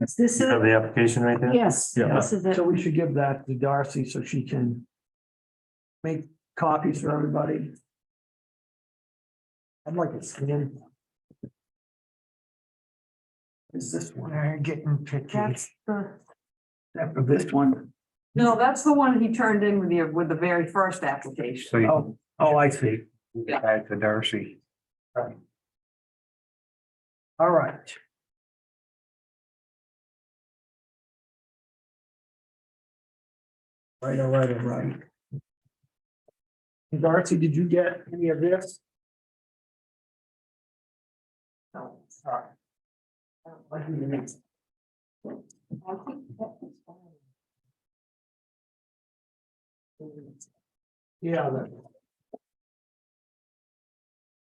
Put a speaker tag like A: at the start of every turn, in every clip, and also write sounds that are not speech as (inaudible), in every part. A: This
B: You
A: is,
B: have the application right there?
A: yes,
C: Yeah.
A: this is it.
D: So we should give that to Darcy so she can make copies for everybody. I'd like it scanned. Is this one, I'm getting picky,
A: That's the,
D: except for this one.
E: No, that's the one he turned in with the, with the very first application.
F: So you
D: Oh, oh, I see.
F: can get back to Darcy.
D: All right. Right, all right, all right. Darcy, did you get any of this?
E: No, sorry. I don't like the next. I think that was fine.
D: Yeah. that-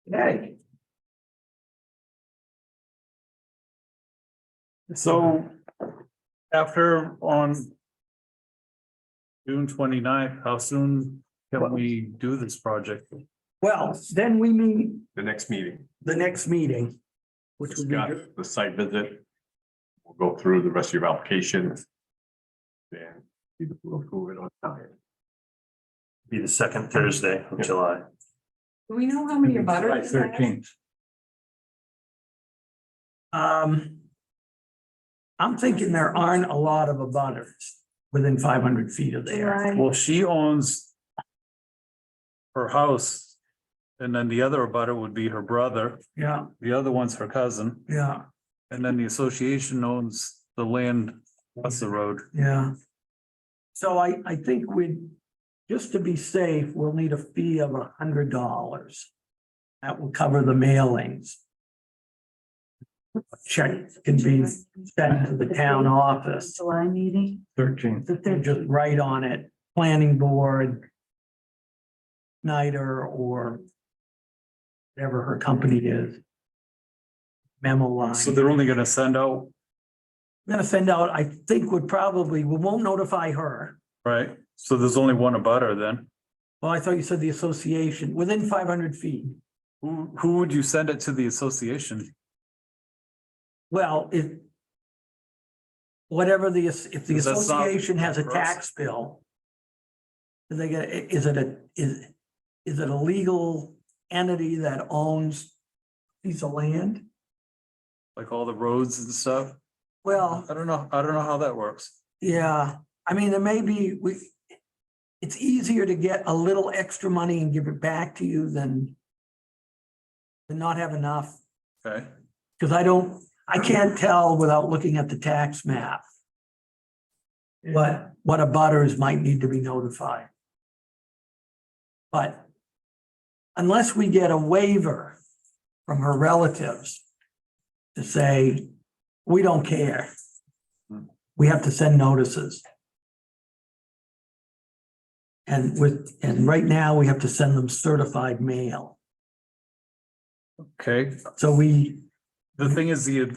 D: Hey.
C: So after on June 29th, how soon can we do this project?
D: Well, then we meet
G: the next meeting.
D: the next meeting, which would be,
G: Got
D: good.
G: The site visit. We'll go through the rest of your application. Then we will approve it on time.
B: Be the second Thursday of July.
E: Do we know how many butters?
C: July 13th.
D: um. I'm thinking there aren't a lot of abutters within five hundred feet of there.
A: July.
C: Well, she owns her house, and then the other abutter would be her brother,
D: Yeah,
C: the other one's her cousin,
D: yeah,
C: and then the association owns the land, that's the road.
D: yeah. So I, I think we, just to be safe, we'll need a fee of a hundred dollars. That will cover the mailings. Check can be sent to the town office.
A: July meeting,
C: Thirteenth.
A: the
D: They're
A: third,
D: just right on it, planning board. Snyder or. Whatever her company is. Memo line.
C: So they're only gonna send out,
D: I'm gonna send out, I think would probably, we won't notify her.
C: right? So there's only one abutter then.
D: Well, I thought you said the association, within five hundred feet.
C: Who, who would you send it to the association?
D: Well, if. Whatever the, if the
C: Because that's not-
D: association has a
C: for us.
D: tax bill. They get, is it a, is, is it a legal entity that owns piece of land?
C: Like all the roads and stuff?
D: Well,
C: I don't know, I don't know how that works.
D: yeah, I mean, there may be, we. It's easier to get a little extra money and give it back to you than. Than not have enough.
C: Okay,
D: Because I don't, I can't tell without looking at the tax map. What, what abutters might need to be notified. But unless we get a waiver from her relatives to say, we don't care. We have to send notices. And with, and right now, we have to send them certified mail.
C: okay.
D: So we,
C: The thing is, the,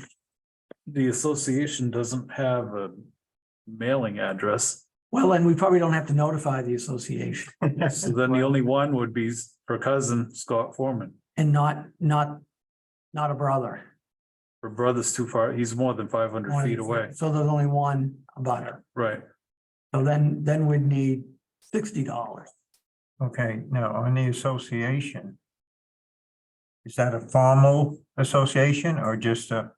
C: the association doesn't have a mailing address.
D: Well, and we probably don't have to notify the association
C: So then the only one would be her cousin, Scott Foreman.
D: and not, not, not a brother.
C: Her brother's too far, he's more than five hundred feet away,
D: So there's only one abutter.
C: right?
D: So then, then we'd need sixty dollars.
F: Okay, now on the association. Is that a formal association or just a,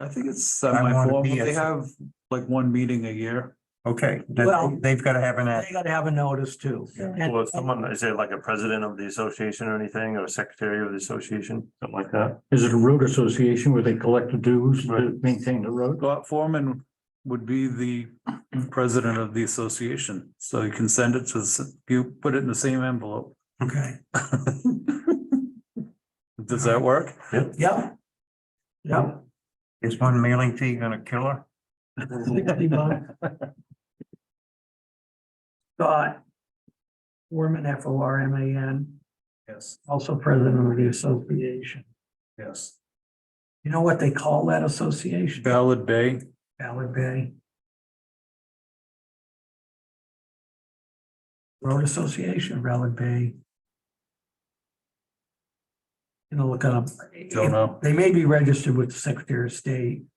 C: I think it's
F: wanna
C: semi-formal,
F: be a-
C: they have like one meeting a year.
F: okay, that-
D: Well-
F: they've got to have an,
D: They
F: act-
D: gotta have a notice too. And-
B: Well, someone, is there like a president of the association or anything, or secretary of the association, something like that?
H: Is it a road association where they collect the dues to
B: Right.
H: maintain the
C: (laughs)
H: road?
C: Scott Foreman would be the president of the association, so you can send it to, the- you put it in the same envelope.
D: Okay,
C: Does that work?
D: yep. Yep.
F: is one mailing fee gonna kill her?
D: Sixty bucks. Scott. Foreman, F O R M A N,
C: Yes,
D: also president of the association.
C: yes.
D: You know what they call that association?
C: Ballard Bay,
D: Ballard Bay. Road Association, of Ballard Bay. You know, look up.
C: don't know.
D: They may be registered with the Secretary of State.